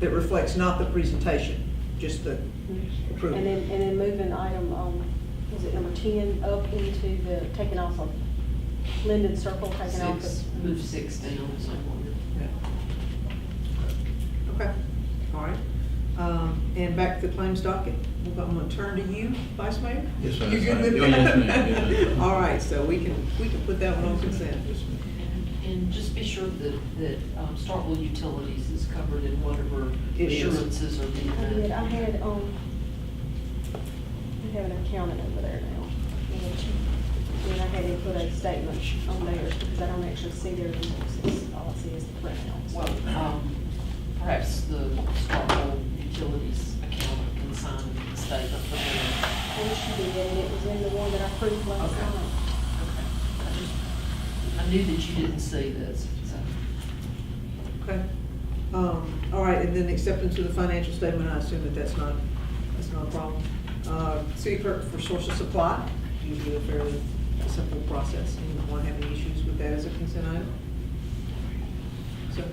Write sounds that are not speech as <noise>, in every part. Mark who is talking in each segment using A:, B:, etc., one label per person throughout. A: that reflects not the presentation, just the approval.
B: And then, and then moving item, um, was it number ten, up into the, taking off of Linden Circle, taking off
C: Six,
B: of.
C: move six down, so
A: Yeah. Okay, all right. Um, And back to the claims docket. I'm going to turn to you, Vice Mayor.
D: Yes, ma'am.
A: You good with
D: Oh, yes, ma'am.
A: that?
D: Yes,
A: <laughs>
D: ma'am.
A: All right, so we can, we can put that one on consent.
D: Yes, ma'am.
C: And just be sure that, that um, Starkville Utilities is covered in whatever
A: It is.
C: assurances are being.
B: I did, Oh, I had, um, I have an accountant over there now. And I had to put a statement on there because I don't actually see their invoices. All I see is the printouts.
C: Well, um, perhaps the Starkville Utilities accountant can sign a statement for them.
B: And she did, and it was in the one that I approved last
C: Okay.
B: time.
C: Okay. I just- I knew that you didn't see this, so.
A: Okay. Um, All right, and then acceptance of the financial statement, I assume that that's not, that's not a problem. Uh, City clerk for source of supply, usually a fairly simple process. Anyone have any issues with that as a consent item? So,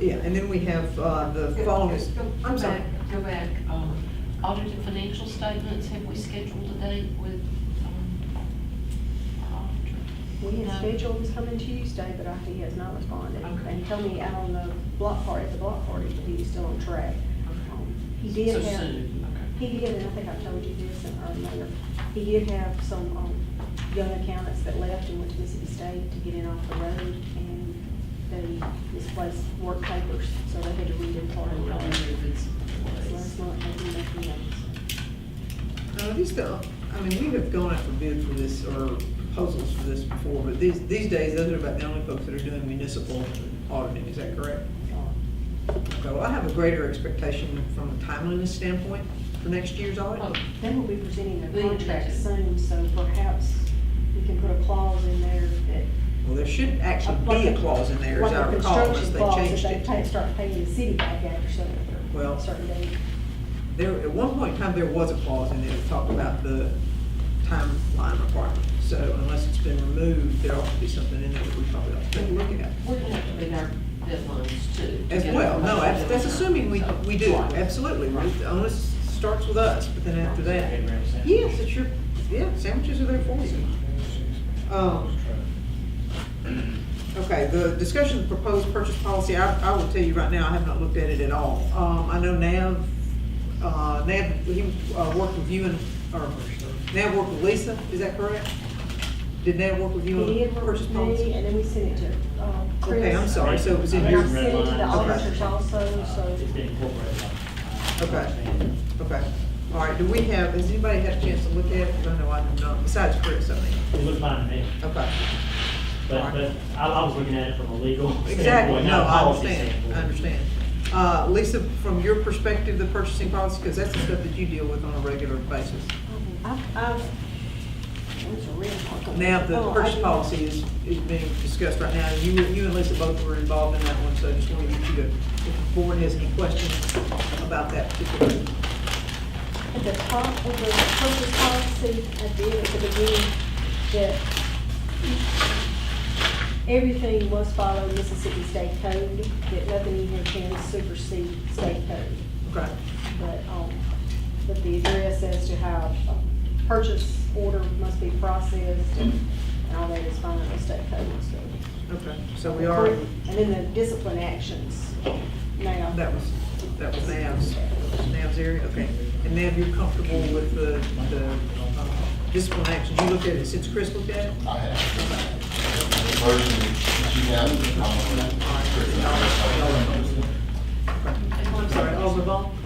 A: yeah, and then we have uh, the following. is-
C: Go-
A: I'm sorry.
C: Go back, go back, um, audited financial statements, have we scheduled a date with, um, uh, our auditor?
B: We
C: No.
B: had scheduled this coming Tuesday, but I- he has not responded.
C: Okay.
B: And told me out on the block party, at the block party, that he's still on track. Um, He did
C: So
B: have,
C: soon, okay.
B: he did, and I think I told you this in our letter, he did have some, um, young accountants that left and went to Mississippi State to get in off the road, and they misplaced work papers, so they had to read in
C: Or
B: part of
C: we're
B: it.
C: on
B: So
C: your goods
B: Last
C: and ways.
B: month, they didn't make any notes.
A: Uh, These, don't- I mean, we have gone out for bid for this, or proposals for this before, but these, these days, those are about the only folks that are doing municipal auditing, is that correct?
B: Um,
A: Okay, well, I have a greater expectation from a timeliness standpoint for next year's
C: Oh,
A: audit.
B: They will be presenting
C: We
B: their
C: need to
B: contract
C: do-
B: soon, so perhaps we can put a clause in there that
A: Well, there should actually be a clause in there, as
B: Like
A: I
B: the
A: recall, unless
B: construction
A: they
B: clause,
A: changed
B: If they pay-
A: it.
B: start paying the city back after certain,
A: Well-
B: certain date.
A: There, at one point in time, there was a clause in there that talked about the timeline requirement. So unless it's been removed, there ought to be something in there that we probably ought to take a look at.
C: We're gonna have to meet our deadlines too. to
A: As
C: get
A: well, no,
C: information
A: that's, that's
C: in.
A: assuming we,
C: So-
A: we do,
C: Right.
A: absolutely, right? The onus starts with us, but then after that, yes, it's your, yeah, sandwiches are there for you. Um, Okay, the discussion of proposed purchase policy, I, I will tell you right now, I have not looked at it at all. Um, I know Nav, uh, Nav, he, uh, worked with you and, or, Nav worked with Lisa, is that correct? Did Nav work with you
B: He
A: on
B: did work
A: purchase
B: with me,
A: policy?
B: and then we sent it to, uh, Chris.
A: Okay, I'm sorry, so it was in
B: And
A: your,
B: I sent it to the
E: Okay.
B: auditors also, so.
E: Uh, It's been incorporated.
A: Okay. okay. All right, do we have, has anybody had a chance to look at it? 'Cause I know I have not, besides Chris, I mean,
E: It looked fine to me,
A: okay.
E: but, but I, I was looking at it from a legal
A: Exactly,
E: standpoint,
A: no,
E: not a
A: I
E: policy
A: understand,
E: standpoint.
A: I understand. Uh, Lisa, from your perspective, the purchasing policy, because that's the stuff that you deal with on a regular basis.
B: Um, I've, I've, it was a real hard-
A: Now, the
B: Oh, I
A: purchase
B: didn't-
A: policy is, is being discussed right now, you, you and Lisa both were involved in that one, so I just wanted you to, if the board has any questions about that particular.
B: At the top of the purchase policy, I did at the beginning, that everything must follow Mississippi State Code, that nothing in here can supersede state code.
A: Okay,
B: But, um, but the address as to how a purchase order must be processed and and all that is fine with state code and stuff.
A: okay, so we are,
B: And then the discipline actions now.
A: that was, that was Nav's, Nav's area, okay. And Nav, you're comfortable with the, the uh, discipline actions, you looked at it since Chris looked at it?
F: I have. The version that you have, I'm
A: I'm sorry, Alderman Vaughn?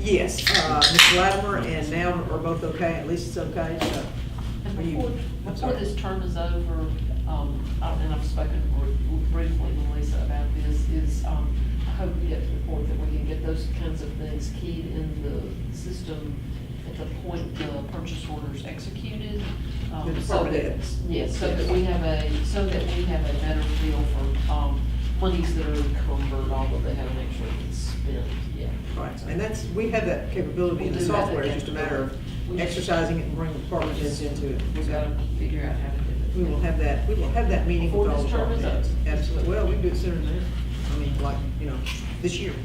A: Yes, uh, Ms. Latimer and now are both okay, at least it's okay, so.
C: And
A: Are you-
C: before,
A: I'm
C: before
A: sorry.
C: this term is over, um, I- and I've spoken br- briefly with Lisa about this, is, um, I hope we get to the point that we can get those kinds of things keyed in the system at the point the purchase order's executed. um,
A: The
C: so
A: department
C: that-
A: heads.
C: Yes, so that we have a, so that we have a better feel for, um, monies that are encumbered, although they haven't actually been spent yet.
A: Right, and that's, we have that capability in the software, it's just a matter of exercising it and bringing the department heads into it.
C: We've got to figure out how to do it.
A: We will have that, we will have that meeting with all the
C: Before this term
A: department
C: is up.
A: heads. Absolutely, well, we can do it sooner than that, I mean, like, you know, this year.